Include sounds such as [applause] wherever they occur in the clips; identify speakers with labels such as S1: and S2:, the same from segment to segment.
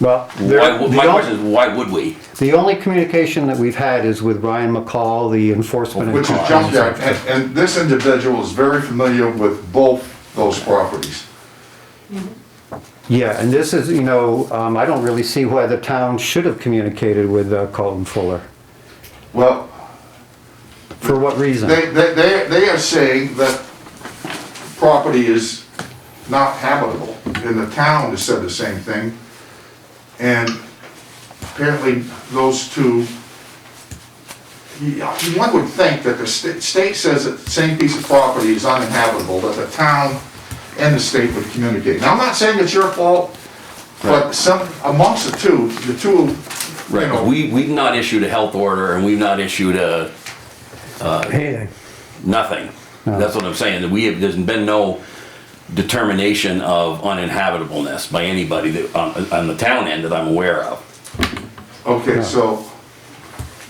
S1: Well,
S2: Why,
S1: there-
S2: would-
S1: the
S2: my
S1: on-
S2: question is, why would we?
S1: the only communication that we've had is with Ryan McCall, the enforcement. and
S3: Which is
S1: crime
S3: junkyard,
S1: inspector.
S3: and, and this individual is very familiar with both those properties.
S1: Yeah, and this is, you know, um, I don't really see why the town should have communicated with uh, Colton Fuller.
S3: Well,
S1: For what reason?
S3: they, they, they they are saying that property is not habitable, and the town has said the same thing. And apparently, those two, yeah, one would think that the sta- state says that the same piece of property is uninhabitable, that the town and the state would communicate. Now, I'm not saying it's your fault, but some, amongst the two, the two, you
S2: Right, 'cause
S3: know.
S2: we, we've not issued a health order and we've not issued a,
S4: Anything.
S2: nothing. That's what I'm saying, that we have, there's been no determination of uninhabitableness by anybody that, on, on the town end that I'm aware of.
S3: Okay, so.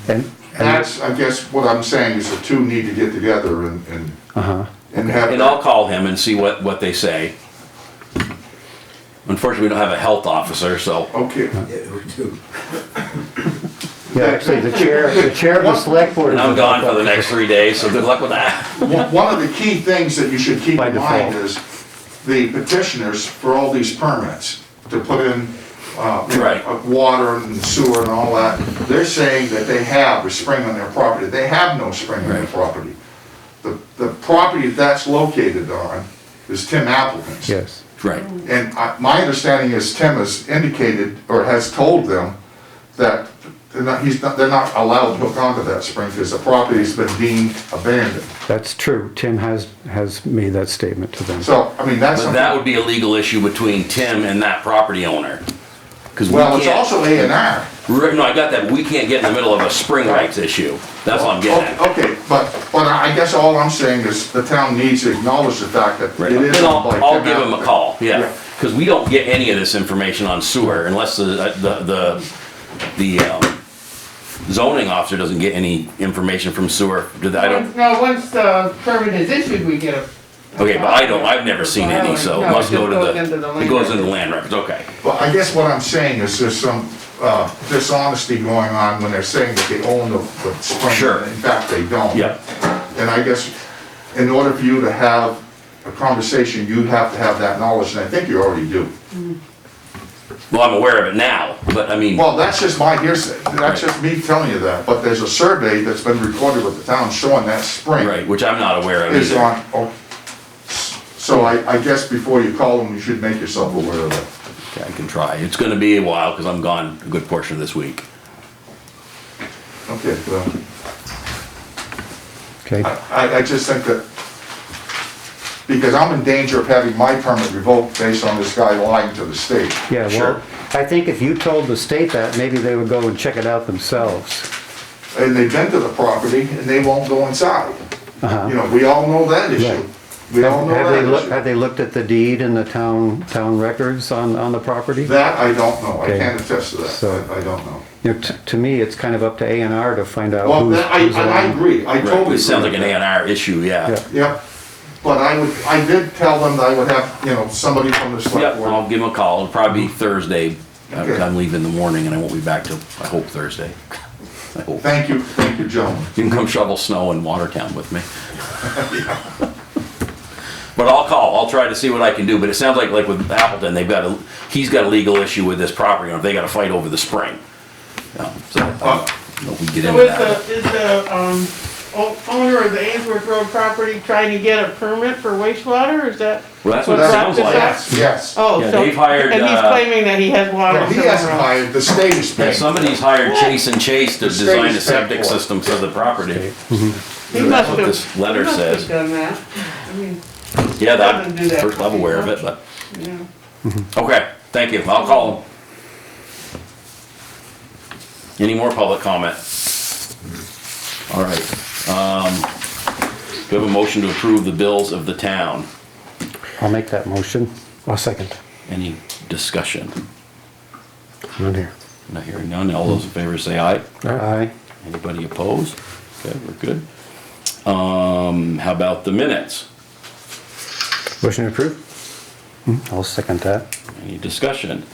S1: And, and,
S3: That's, I guess, what I'm saying is the two need to get together and, and,
S1: Uh-huh.
S3: and have.
S2: And I'll call him and see what, what they say. Unfortunately, we don't have a health officer, so,
S3: Okay,
S1: yeah, actually, the chair, the chair of the select board.
S2: and I'm gone for the next three days, so good luck with that.
S3: one one of the key things that you should keep
S1: By
S3: in mind
S1: default.
S3: is the petitioners for all these permits to put in, uh, you know,
S2: Right.
S3: uh, water and sewer and all that, they're saying that they have a spring on their property. They have no spring on their property. The, the property that's located on is Tim Appleton's.
S1: Yes,
S2: Right,
S3: And I- my understanding is Tim has indicated, or has told them, that they're not, he's not, they're not allowed to hook onto that spring because the property's been deemed abandoned.
S1: that's true. Tim has, has made that statement to them.
S3: So, I mean, that's
S2: but that
S3: something,
S2: would be a legal issue between Tim and that property owner. 'Cause we
S3: well, it's
S2: can't-
S3: also A and R.
S2: Right, no, I got that, but we can't get in the middle of a spring rights issue. That's what Oh, I'm getting at.
S3: Okay, but, but I guess all I'm saying is the town needs to acknowledge the fact that
S2: Right,
S3: oh, it is.
S2: Then I'll,
S3: owned by
S2: I'll
S3: Tim
S2: give him a
S3: Appleton.
S2: call,
S3: Yeah.
S2: yeah. Because we don't get any of this information on sewer unless the, the, the, the um, zoning officer doesn't get any information from sewer. Did I don't,
S5: Now, once the permit is issued, we get a.
S2: okay, but I don't, I've never seen any, so
S5: No,
S2: it
S5: it
S2: must go
S5: just goes
S2: to
S5: into
S2: the,
S5: the
S2: it goes
S5: land
S2: into the land records, okay.
S3: Well, I guess what I'm saying is there's some uh, dishonesty going on when they're saying that they own the the spring.
S2: Sure.
S3: In fact, they don't.
S2: Yeah.
S3: And I guess in order for you to have a conversation, you have to have that knowledge, and I think you already do.
S2: Well, I'm aware of it now, but I mean,
S3: Well, that's just my hearsay, that's just me telling you that, but there's a survey that's been recorded with the town showing that spring.
S2: right, which I'm not aware of
S3: Is
S2: either.
S3: on, oh, so I, I guess before you call them, you should make yourself aware of that.
S2: Okay, I can try. It's gonna be a while because I'm gone a good portion of this week.
S3: Okay, well.
S1: Okay,
S3: I, I just think that, because I'm in danger of having my permit revoked based on this guy lying to the state.
S1: yeah, well,
S2: Sure.
S1: I think if you told the state that, maybe they would go and check it out themselves.
S3: And they've been to the property and they won't go inside. You know, we all know that issue.
S1: Uh-huh. Right.
S3: We all know
S1: Have they looked,
S3: that
S1: have they
S3: issue.
S1: looked at the deed and the town, town records on, on the property?
S3: That I don't know. I
S1: Okay.
S3: can't attest to
S1: So-
S3: that. I I don't know.
S1: You know, t- to me, it's kind of up to A and R to find out
S3: Well,
S1: who's,
S3: that- I,
S1: who's
S3: and I
S1: around.
S3: agree. I totally agree.
S2: It sounds like an
S3: with
S2: A
S3: that.
S2: and R issue,
S1: Yeah.
S2: yeah.
S3: Yep. But I would, I did tell them that I would have, you know, somebody from the
S2: Yep,
S3: select board.
S2: I'll give him a call. It'll probably be Thursday. I'm
S3: Okay.
S2: I'm leaving in the morning and I won't be back till, I hope, Thursday. I hope.
S3: Thank you, thank you, gentlemen.
S2: You can come shovel snow in Watertown with me. But I'll call. I'll try to see what I can do. But it sounds like, like with Appleton, they've got a, he's got a legal issue with this property owner. They got to fight over the spring. Um, So,
S3: Uh,
S2: I don't know if we get
S5: So
S2: into
S5: is the,
S2: that.
S5: is the, um, o- owner of the Ainsworth Road property trying to get a permit for wastewater, is that?
S2: Well, that's what it
S5: what
S2: sounds
S5: brought
S2: like.
S5: this
S3: Yes, yes.
S5: Oh,
S2: Yeah,
S5: so, and
S2: they've
S5: he's
S2: hired, uh,
S5: claiming that he has water
S3: No, He
S5: somewhere
S3: hasn't
S5: else.
S3: hired, the state is
S2: Yeah,
S3: paying.
S2: somebody's hired Chase and Chase to
S3: The state
S2: design
S3: is
S2: a septic
S3: paying for it.
S2: system for the property.
S5: He
S2: That's
S5: must
S2: what
S5: have- [laughs]
S2: this letter
S5: he must have
S2: says.
S5: Done that, I mean,
S2: Yeah, that,
S5: Doesn't do that.
S2: first I'm aware of it, but,
S5: you know.
S2: okay, thank you, I'll call him. Any more public comment? All right, um, do we have a motion to approve the bills of the town?
S1: I'll make that motion.
S4: I'll second.
S2: Any discussion?
S1: None here.
S2: Not hearing none, all those in favor say aye.
S1: Aye.
S2: Anybody opposed? Okay, we're good. Um, how about the minutes?
S1: Motion approved? I'll second that.
S2: Any discussion?